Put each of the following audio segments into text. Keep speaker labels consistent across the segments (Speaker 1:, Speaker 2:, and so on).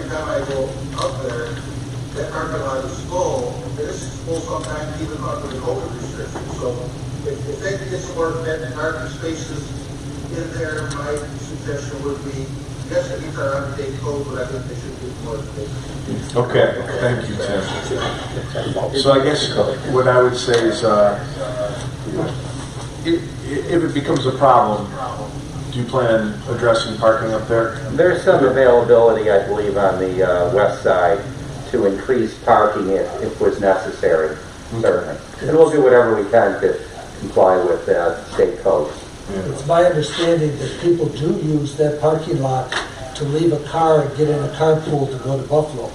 Speaker 1: time I go up there, that parking lot is full, and this is full sometimes even under the COVID restrictions, so if, if they can get some more vetted parking spaces in there, my suggestion would be, yes, it meets our update code, but I think they should do more spaces.
Speaker 2: Okay, thank you, Tim. So I guess what I would say is, uh, i- i- if it becomes a problem, do you plan on addressing parking up there?
Speaker 3: There's some availability, I believe, on the uh, west side to increase parking if, if was necessary, certainly. And we'll do whatever we can to comply with uh, state codes.
Speaker 4: It's my understanding that people do use that parking lot to leave a car and get in a carpool to go to Buffalo,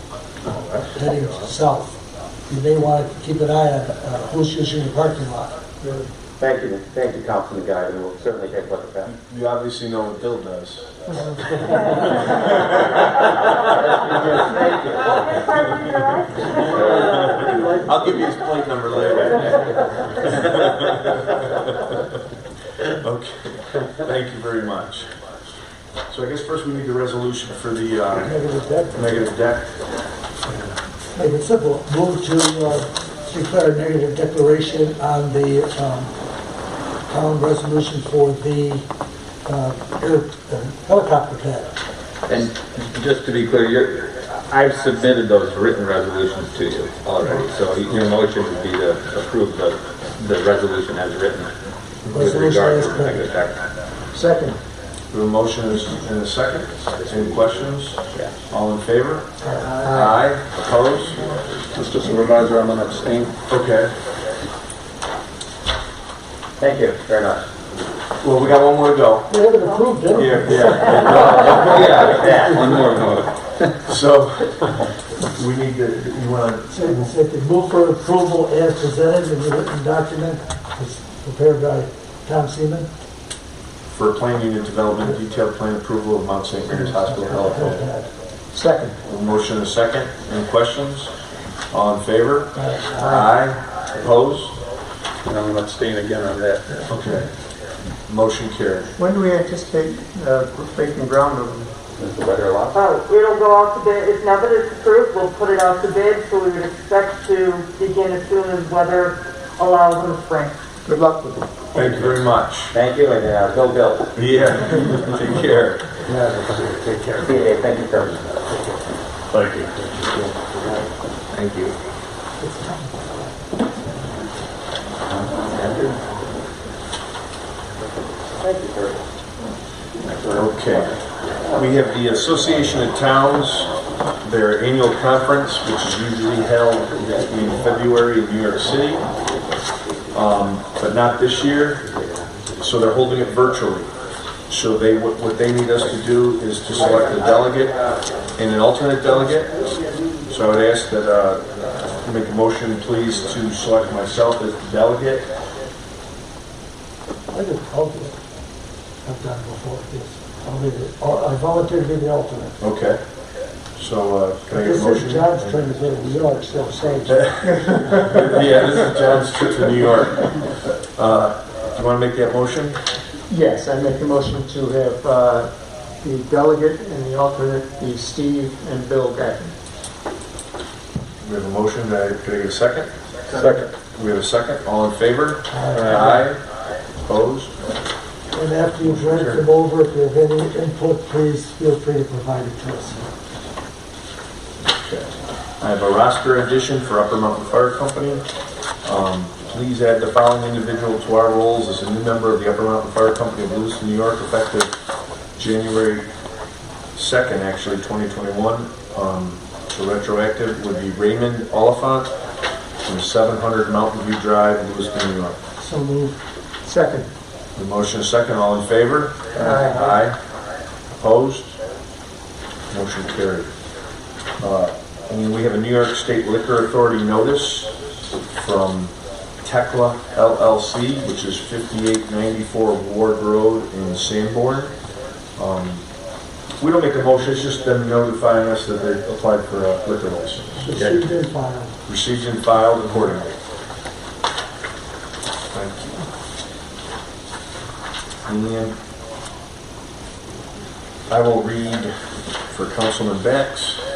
Speaker 4: heading south. You may want to keep an eye on uh, who's using the parking lot.
Speaker 3: Thank you, thank you, Councilman Guy, and we'll certainly take a look at that.
Speaker 2: You obviously know what Bill does. I'll give you his plate number later. Okay, thank you very much. So I guess first we need the resolution for the uh,
Speaker 4: Negative debt.
Speaker 2: negative deck.
Speaker 4: Make it simple. Move to uh, declare a negative declaration on the um, town resolution for the uh, air- uh, helicopter pad.
Speaker 5: And just to be clear, you're, I've submitted those written resolutions to you already, so your motion would be to approve the, the resolution as written with
Speaker 4: Resolution
Speaker 5: regard
Speaker 4: as
Speaker 5: to the
Speaker 4: written.
Speaker 5: negative act.
Speaker 4: Second.
Speaker 2: We have a motion and a second. Any questions? All in favor? Aye. Opposed?
Speaker 6: Mr. Supervisor, I'm going to abstain.
Speaker 2: Okay.
Speaker 3: Thank you very much.
Speaker 2: Well, we got one more to go.
Speaker 4: We haven't approved it.
Speaker 2: Yeah, yeah.
Speaker 5: Oh, Yeah, one more vote.
Speaker 2: So, we need to, you want
Speaker 4: So it's if they move for approval as presented in the written document, it's prepared by Tom Seaman.
Speaker 2: to, for plan unit development, detailed plan approval of Mount St. Mary's Hospital Health.
Speaker 4: Second.
Speaker 2: A Motion and a second. Any questions? All in favor? Aye. Opposed?
Speaker 6: And I'm going to abstain again on that.
Speaker 2: Okay. Motion carried.
Speaker 7: When do we anticipate uh, breaking ground over there?
Speaker 3: Mr. Weatherly?
Speaker 8: Uh, it'll go out to bid, if now that it's approved, we'll put it out to bid, so we would expect to begin as soon as weather allows in the spring.
Speaker 7: Good luck with it.
Speaker 2: Thank you very much.
Speaker 3: Thank you, and uh, go Bill.
Speaker 2: Yeah. Take care.
Speaker 3: See you, Dave. thank you so much.
Speaker 5: Thank you.
Speaker 2: Okay. We have the Association of Towns, their annual conference, which is usually held in February in New York City, um, but not this year, so they're holding it virtually. So they, what what they need us to do is to select a delegate and an alternate delegate. So I would ask that, uh, make a motion, please, to select myself as the delegate.
Speaker 4: I did alternate. I've done before, yes. I'll be the- oh, I volunteer to be the alternate.
Speaker 2: Okay. So uh, can I get a
Speaker 4: This
Speaker 2: motion?
Speaker 4: is John's trying to get New York, so say,
Speaker 2: Yeah, this is John's trip to New York. Uh, Do you want to make that motion?
Speaker 7: Yes, I make a motion to have uh, the delegate and the alternate be Steve and Bill Gacken.
Speaker 2: We have a motion, Uh, could I get a second? Second. We have a second, all in favor? Aye. Opposed?
Speaker 4: and after you've read them over, if you have any input, please feel free to provide it to us.
Speaker 2: I have a roster addition for Upper Mountain Fire Company. Um, Please add the following individual to our roles as a new member of the Upper Mountain Fire Company of Lewiston, New York, effective January 2nd, actually, 2021. Um, The retroactive would be Raymond Oliphant from 700 Mountain View Drive, Lewiston, New York.
Speaker 4: So move.
Speaker 7: Second.
Speaker 2: The motion is second, all in favor? Aye. Opposed? Motion carried. Uh, And we have a New York State Liquor Authority notice from Tekla LLC, which is 5894 Ward Road in Sanborn. Um, We don't make a motion, it's just them notifying us that they applied for a liquor license.
Speaker 4: Received and filed.
Speaker 2: Received and filed accordingly. Thank you. And I will read for Councilman Bex,